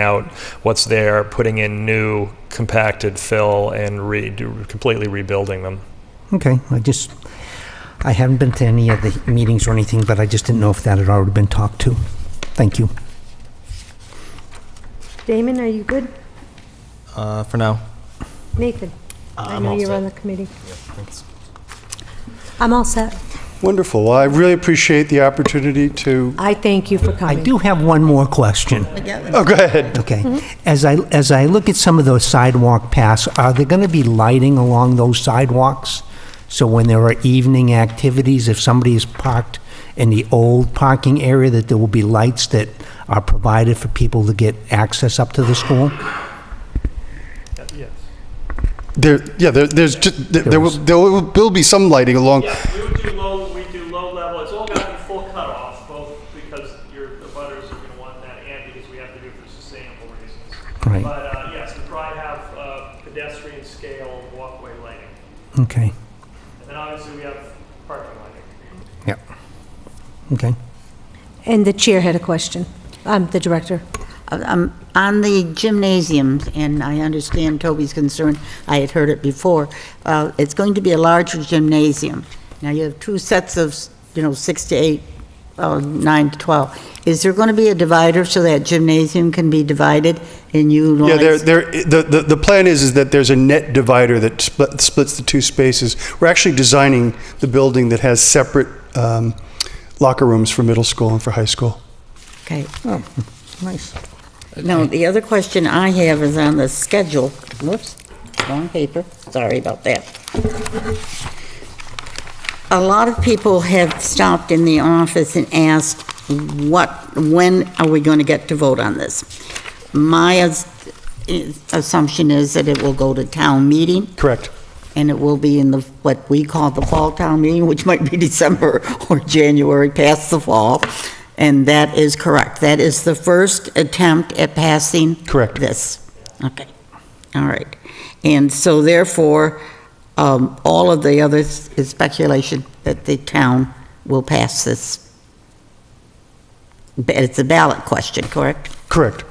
out what's there, putting in new compacted fill and re, do- completely rebuilding them. Okay, I just, I haven't been to any of the meetings or anything, but I just didn't know if that had already been talked to. Thank you. Damon, are you good? Uh, for now. Nathan? I I'm all know you're set. on the committee. I'm all set. Wonderful. Well, I really appreciate the opportunity to, I thank you for I coming. do have one more question. oh, go ahead. Okay. As I, as I look at some of those sidewalk paths, are there going to be lighting along those sidewalks? So when there are evening activities, if somebody is parked in the old parking area, that there will be lights that are provided for people to get access up to the school? There, yeah, there, there's, ju- there there will, there will will be some lighting along, Yeah, we would do low, we do low level, it's all gotta be full cutoff, both because your, the butters are gonna want that and because we have to do it for sustainable reasons. Right. But, uh, yes, we probably have, uh, pedestrian scale walkway lighting, Okay. and then obviously we have parking lighting. Yep. Okay. And the chair had a question. I'm the director. Um, On the gymnasiums, and I understand Toby's concern, I had heard it before, uh, it's going to be a larger gymnasium. Now, you have two sets of, you know, six to eight, uh, nine to 12. Is there going to be a divider so that gymnasium can be divided and yeah, there, utilized? there, the, the, the plan is, is that there's a net divider that split- splits the two spaces. We're actually designing the building that has separate um, locker rooms for middle school and for high school. Okay. Nice. No, the other question I have is on the schedule. Whoops, wrong paper. Sorry about that. A lot of people have stopped in the office and asked, what, when are we going to get to vote on this? My as- eh, assumption is that it will go to town meeting Correct. and it will be in the, what we call the fall town meeting, which might be December or January, past the fall. And that is correct. That is the first attempt at passing. Correct. This. Okay. All right. And so therefore, um, all of the others is speculation that the town will pass this. But It's a ballot question, correct? Correct.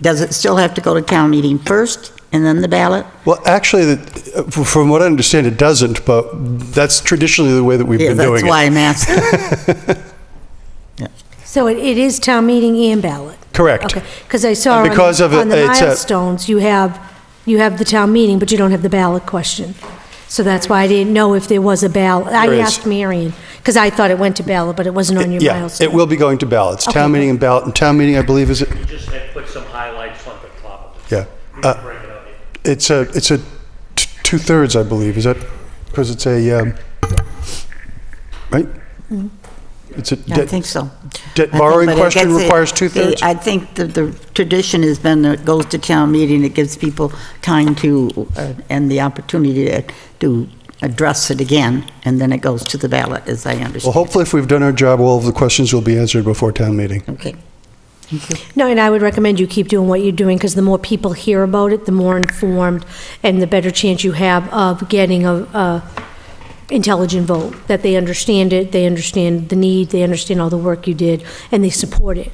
Does it still have to go to town meeting first and then the ballot? Well, actually, the- uh, from what I understand, it doesn't, but that's traditionally the way that we've Yeah, been that's doing why it. I'm asking. So it it is town meeting and ballot? Correct. Okay, because I saw And on because of it, the- on the it's a- milestones, you have, you have the town meeting, but you don't have the ballot question. So that's why I didn't know if there was a ballot. There I is. asked Marion, because I thought it went to ballot, but it wasn't on your Yeah, milestone. it will be going to ballots. Town Okay. meeting and ballot, and town meeting, I believe, is, it? You just had put some highlights on the top of yeah. We Uh, can break it up. It's a, it's a t- two-thirds, I believe, is that, because it's a, um, right? It's a Mm-hmm. I debt- think so. debt I think- borrowing but it question gets it- requires two-thirds? I think that the tradition has been that it goes to town meeting, it gives people time to, uh, and the opportunity to- to address it again, and then it goes to the ballot, as I understand. Well, hopefully, if we've done our job, all of the questions will be answered before town meeting. Okay. No, and I would recommend you keep doing what you're doing, because the more people hear about it, the more informed, and the better chance you have of getting a, a intelligent vote, that they understand it, they understand the need, they understand all the work you did, and they support it.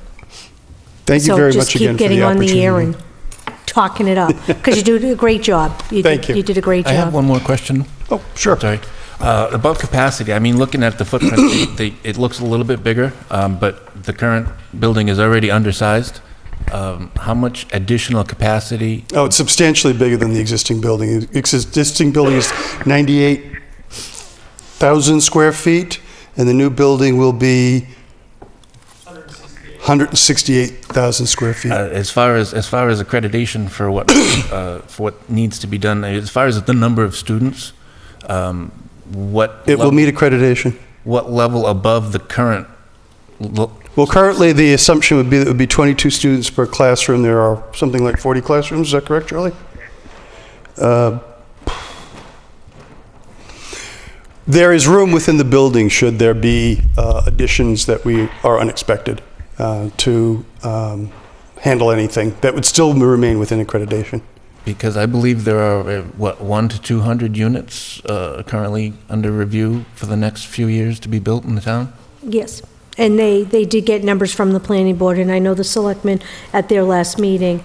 Thank you very much again So just keep for getting the on the air opportunity. and talking it up, because you do a great job. did- Thank you. You did a great I have job. one more question. Oh, sure. Sorry. Uh, About capacity, I mean, looking at the footprint, they- they- it looks a little bit bigger, um, but the current building is already undersized. Um, How much additional capacity? Oh, it's substantially bigger than the existing building. The Existing building is 98,000 square feet, and the new building will be 168,000 square feet. uh, As far as, as far as accreditation for what, uh, for what needs to be done, as far as the number of students, um, what? It will lev- meet accreditation. What level above the current? lo- Well, currently, the assumption would be that it would be 22 students per classroom. There are something like 40 classrooms, is that correct, Charlie? Uh, There is room within the building, should there be uh, additions that we are unexpected uh, to um, handle anything that would still remain within accreditation. Because I believe there are, uh, what, one to 200 units uh, currently under review for the next few years to be built in the town? Yes. And they, they did get numbers from the planning board, and I know the selectmen at their last meeting